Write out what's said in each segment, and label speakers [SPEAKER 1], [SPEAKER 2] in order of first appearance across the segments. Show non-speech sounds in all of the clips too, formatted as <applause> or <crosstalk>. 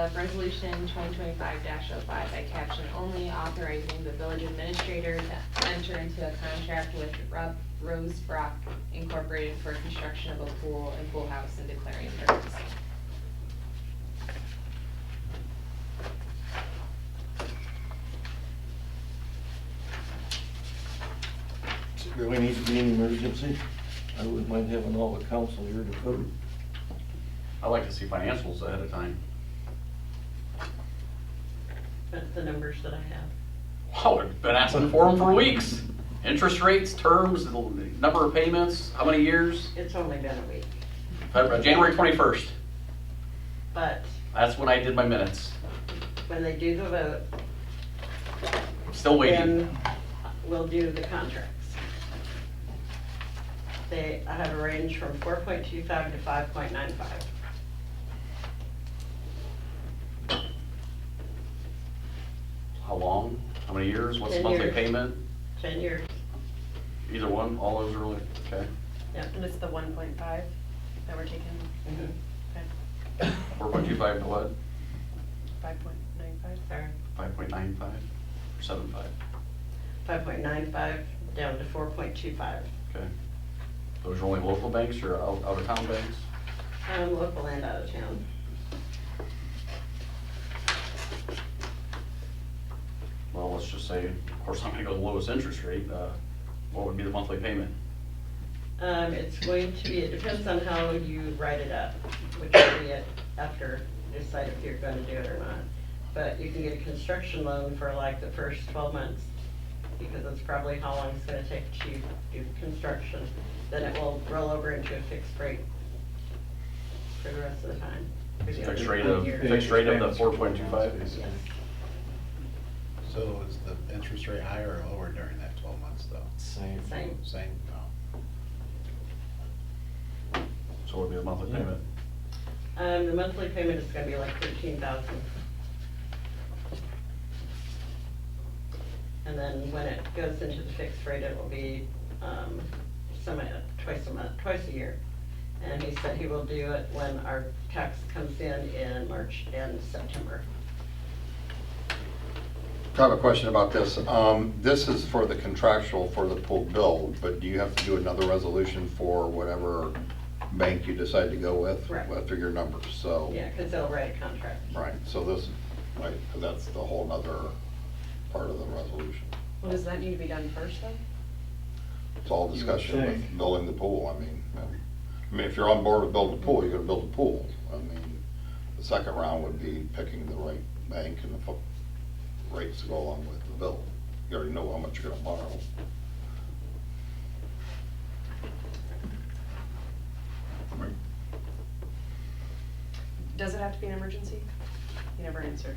[SPEAKER 1] have resolution twenty twenty-five 5 by caption only authorizing the village administrator to enter into a contract with Rob Rose Brock Incorporated for construction of a pool and pool house and declaring an emergency.
[SPEAKER 2] Do we need to be an emergency? I wouldn't mind having all the council here to vote.
[SPEAKER 3] I like to see financials ahead of time.
[SPEAKER 4] But the numbers that I have.
[SPEAKER 3] Wow, I've been asking for them for weeks. Interest rates, terms, the number of payments, how many years?
[SPEAKER 4] It's only been a week,
[SPEAKER 3] Uh, January 21st,
[SPEAKER 4] but
[SPEAKER 3] that's when I did my minutes.
[SPEAKER 4] when they do the vote,
[SPEAKER 3] I'm still waiting.
[SPEAKER 4] then we'll do the contracts. They, I have a range from four point two five to five point nine five.
[SPEAKER 3] How long? How many years? What's the
[SPEAKER 4] Ten
[SPEAKER 3] monthly
[SPEAKER 4] years.
[SPEAKER 3] payment?
[SPEAKER 4] Ten years.
[SPEAKER 3] Either one, all those really, okay.
[SPEAKER 5] And it's the one point five that we're taking,
[SPEAKER 4] Mhm.
[SPEAKER 3] Four point two five to what?
[SPEAKER 5] five point nine five?
[SPEAKER 4] Sorry,
[SPEAKER 3] Five point nine five, seven five,
[SPEAKER 4] five point nine five down to four point two five.
[SPEAKER 3] okay. Those are only local banks or out, out of town banks?
[SPEAKER 4] Um, local and out of town.
[SPEAKER 3] Well, let's just say, of course, I'm gonna go the lowest interest rate, uh, what would be the monthly payment?
[SPEAKER 4] Um, it's going to be, it depends on how you write it up, which will be it after, you decide if you're gonna do it or not. But you can get a construction loan for like the first twelve months, because that's probably how long it's gonna take to do construction. Then it will roll over into a fixed rate for the rest of the time. for the other
[SPEAKER 3] Fixed rate of,
[SPEAKER 4] year.
[SPEAKER 3] fixed rate of the four point two five?
[SPEAKER 4] Yes.
[SPEAKER 6] So is the interest rate higher or lower during that twelve months though?
[SPEAKER 2] Same.
[SPEAKER 4] Same,
[SPEAKER 6] Same? Oh. No.
[SPEAKER 3] So it would be the monthly payment.
[SPEAKER 4] um, the monthly payment is gonna be like thirteen thousand. And then when it goes into the fixed rate, it will be, um, some, twice a month, twice a year. And he said he will do it when our tax comes in in March and September.
[SPEAKER 7] I have a question about this. Um, This is for the contractual for the pool build, but do you have to do another resolution for whatever bank you decide to go with?
[SPEAKER 4] Correct.
[SPEAKER 7] After your numbers, so,
[SPEAKER 4] Yeah, cause they'll write a contract.
[SPEAKER 7] right, so this, right, that's the whole nother part of the resolution.
[SPEAKER 5] Well, does that need to be done first though?
[SPEAKER 7] It's all
[SPEAKER 2] You would
[SPEAKER 7] discussion
[SPEAKER 2] think.
[SPEAKER 7] with building the pool, I mean, I mean, if you're on board with building the pool, you're gonna build a pool. I mean, the second round would be picking the right bank and the fo- rates to go along with the bill. You already know how much you're gonna borrow.
[SPEAKER 5] Does it have to be an emergency? You never answered.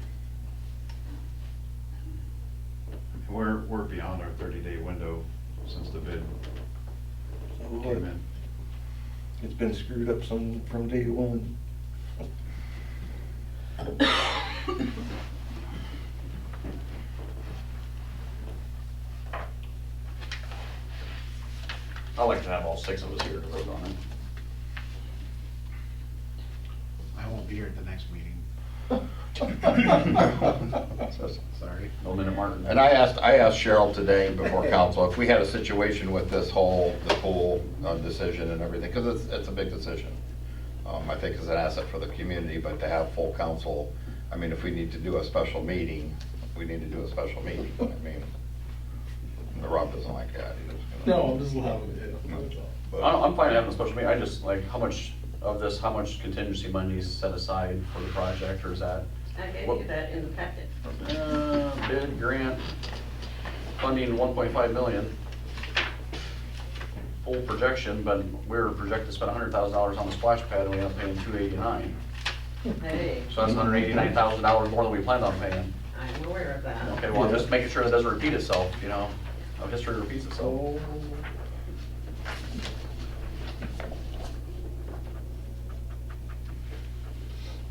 [SPEAKER 8] We're, we're beyond our thirty-day window since the bid came in.
[SPEAKER 2] uh, It's been screwed up some, from day one.
[SPEAKER 3] I like to have all six of us here to vote on it.
[SPEAKER 6] I won't be here at the next meeting,
[SPEAKER 2] <laughs>
[SPEAKER 6] sorry.
[SPEAKER 3] Bill Minute Martin.
[SPEAKER 7] And I asked, I asked Cheryl today before council, if we had a situation with this whole, the pool uh, decision and everything, because it's, it's a big decision. Um, I think it's an asset for the community, but to have full council, I mean, if we need to do a special meeting, we need to do a special meeting, I mean. Rob doesn't like that. he doesn't-
[SPEAKER 2] just laughing
[SPEAKER 7] But-
[SPEAKER 3] I'm, I'm fine having a special meeting, I just like, how much of this, how much contingency money is set aside for the project, or is that?
[SPEAKER 4] I gave you
[SPEAKER 3] What-
[SPEAKER 4] that in the packet.
[SPEAKER 3] Uh, Bid, grant, funding one point five million. Full projection, but we're projected to spend hundred thousand dollars on the splash pad, and we end up paying two eighty-nine.
[SPEAKER 4] Hey,
[SPEAKER 3] So that's hundred eighty-nine thousand dollars more than we planned on paying.
[SPEAKER 4] I'm aware of that.
[SPEAKER 3] Okay, well, I'm just making sure that doesn't repeat itself, you know, how history repeats itself.
[SPEAKER 2] So,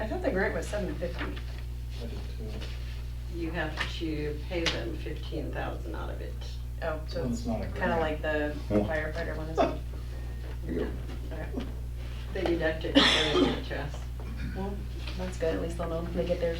[SPEAKER 5] I thought the grant was seven fifty.
[SPEAKER 2] I did too.
[SPEAKER 4] You have to pay them fifteen thousand out of it.
[SPEAKER 5] Oh, so
[SPEAKER 2] Well,
[SPEAKER 5] it's
[SPEAKER 2] it's not a
[SPEAKER 5] kinda
[SPEAKER 2] grant.
[SPEAKER 5] like the
[SPEAKER 7] Well-
[SPEAKER 5] firefighter one as well.
[SPEAKER 7] Yeah.
[SPEAKER 5] Okay.
[SPEAKER 4] They deduct it and bring it to us.
[SPEAKER 5] Well,
[SPEAKER 1] That's good, at least they'll know when they get theirs.